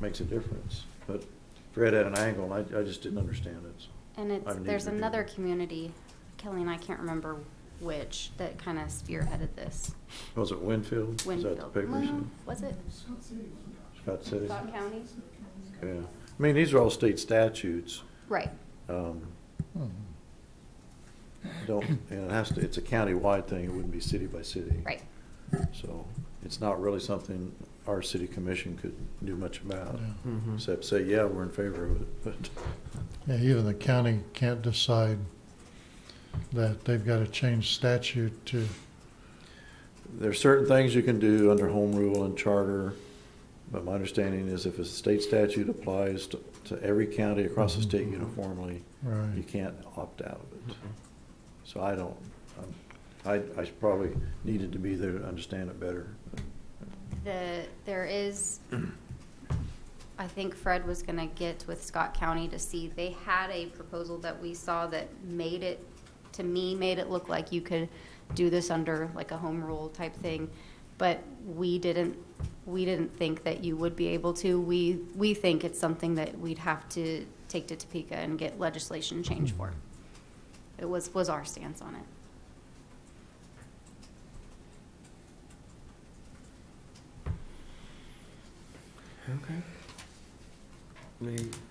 makes a difference. But Fred had an angle, and I, I just didn't understand it. And I've it's, needed there's to do another that. community, Kelly and I can't remember which, that kind of spearheaded this. Was it Winfield? Is that the Winfield. paper you Well, said? Mm-hmm. Was it Scott City? Scott County? Yeah. I mean, these are all state statutes. Right. Um, Hmm. Don't, and it has to, it's a county-wide thing, it wouldn't be city by city. Right. So it's not really something our city commission could do much about, Yeah. Mm-hmm. except say, yeah, we're in favor of it, but. Yeah, even the county can't decide that they've got to change statute to, There are certain things you can do under home rule and charter, but my understanding is if a state statute applies to, to every county across the state uniformly, you right, can't opt out of it. So I don't, um, I, I probably needed to be there to understand it better. The, there is, I think Fred was gonna get with Scott County to see, they had a proposal that we saw that made it, to me, made it look like you could do this under like a home rule type thing. But we didn't, we didn't think that you would be able to. We, we think it's something that we'd have to take to Topeka and get legislation change for. It was, was our stance on it.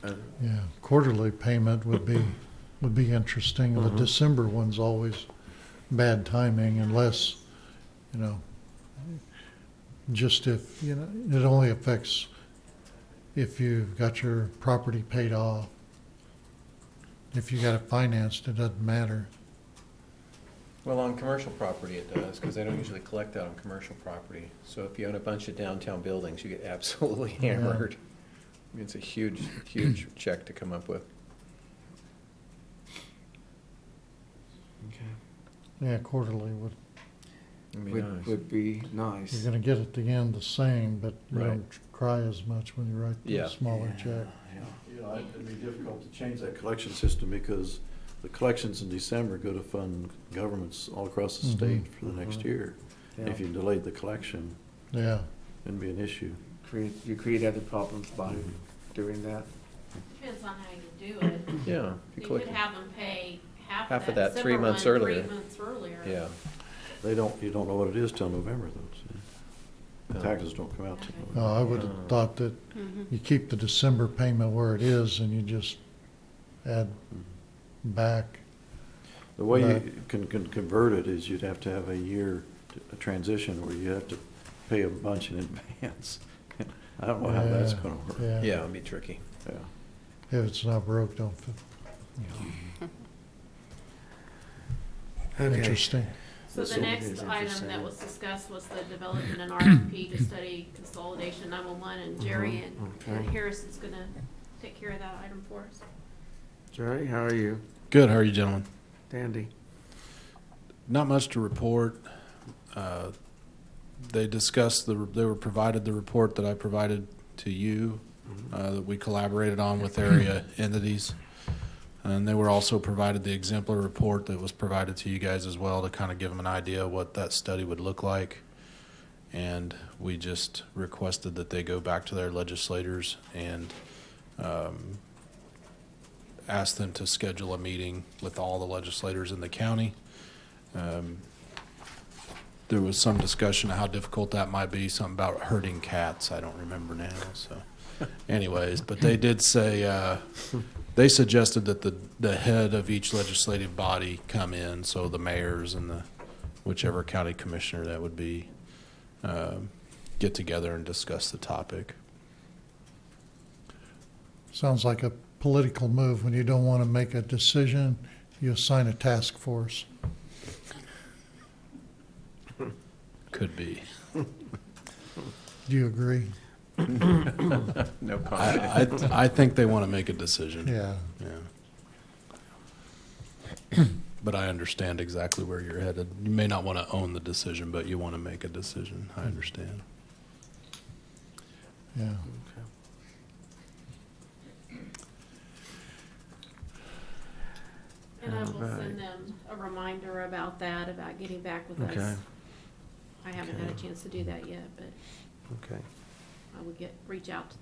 uh, yeah. Quarterly payment would be, would be interesting. The Mhm. December one's always bad timing unless, you know, just if, you know, it only affects if you've got your property paid off. If you got it financed, it doesn't matter. Well, on commercial property it does, because they don't usually collect that on commercial property. So if you own a bunch of downtown buildings, you get absolutely Yeah. hammered. I mean, It's a huge, huge check to come up with. Yeah, quarterly would It'd be Would, nice. would be You're nice. gonna get at the end the same, but you Right. don't cry as much when you write Yeah. the smaller Yeah, check. yeah. You know, it'd be difficult to change that collection system because the collections in December go to fund governments all across the Mhm. state for the next Mhm. year. Yeah. If you delayed the collection, Yeah, it'd be an issue. Create, you create other problems by doing that. Depends on how you do it. Yeah. if you You collect- could have them pay half Half of of that that three Zimmer one months three earlier. months earlier. Yeah. They don't, you don't know what it is till November though. so Oh. Taxes don't come out till November. no, I would have Uh. thought that Mm-hmm. you keep the December payment where it is and you just add back. Mm-hmm. The way you Right. can, can convert it is you'd have to have a year, to- a transition where you have to pay a bunch in advance. I don't know how that's Yeah, gonna work. Yeah, Yeah, it'd be tricky. Yeah. if it's not broke, don't, fi- Okay. interesting. So This the one next is item interesting. that was discussed was the development and RFP to study consolidation nine one one and Jerry Mhm, and- okay. and Harris is gonna take care of that item for us. Jerry, how are you? Good. How are you, gentlemen? Dandy. Not much to report. Uh, They discussed the, they were provided the report that I provided to you, uh, that we collaborated on with area entities. And they were also provided the exemplar report that was provided to you guys as well to kind of give them an idea of what that study would look like. And we just requested that they go back to their legislators and um, ask them to schedule a meeting with all the legislators in the county. Um, There was some discussion of how difficult that might be, something about herding cats, I don't remember now, so. Anyways, but they did say, uh, they suggested that the, the head of each legislative body come in, so the mayors and the, whichever county commissioner that would be, um, get together and discuss the topic. Sounds like a political move. When you don't want to make a decision, you assign a task force. Could be. Do you agree? No comment. I, I, I think they want to make a decision. Mm-hmm. Yeah, Yeah. But I understand exactly where you're headed. You may not want to own the decision, but you want to make a decision. I understand. yeah. And I will Alright. send them a reminder about that, about getting back with Okay. us. I haven't had a Okay. chance to do that yet, but Okay. I will get, reach out to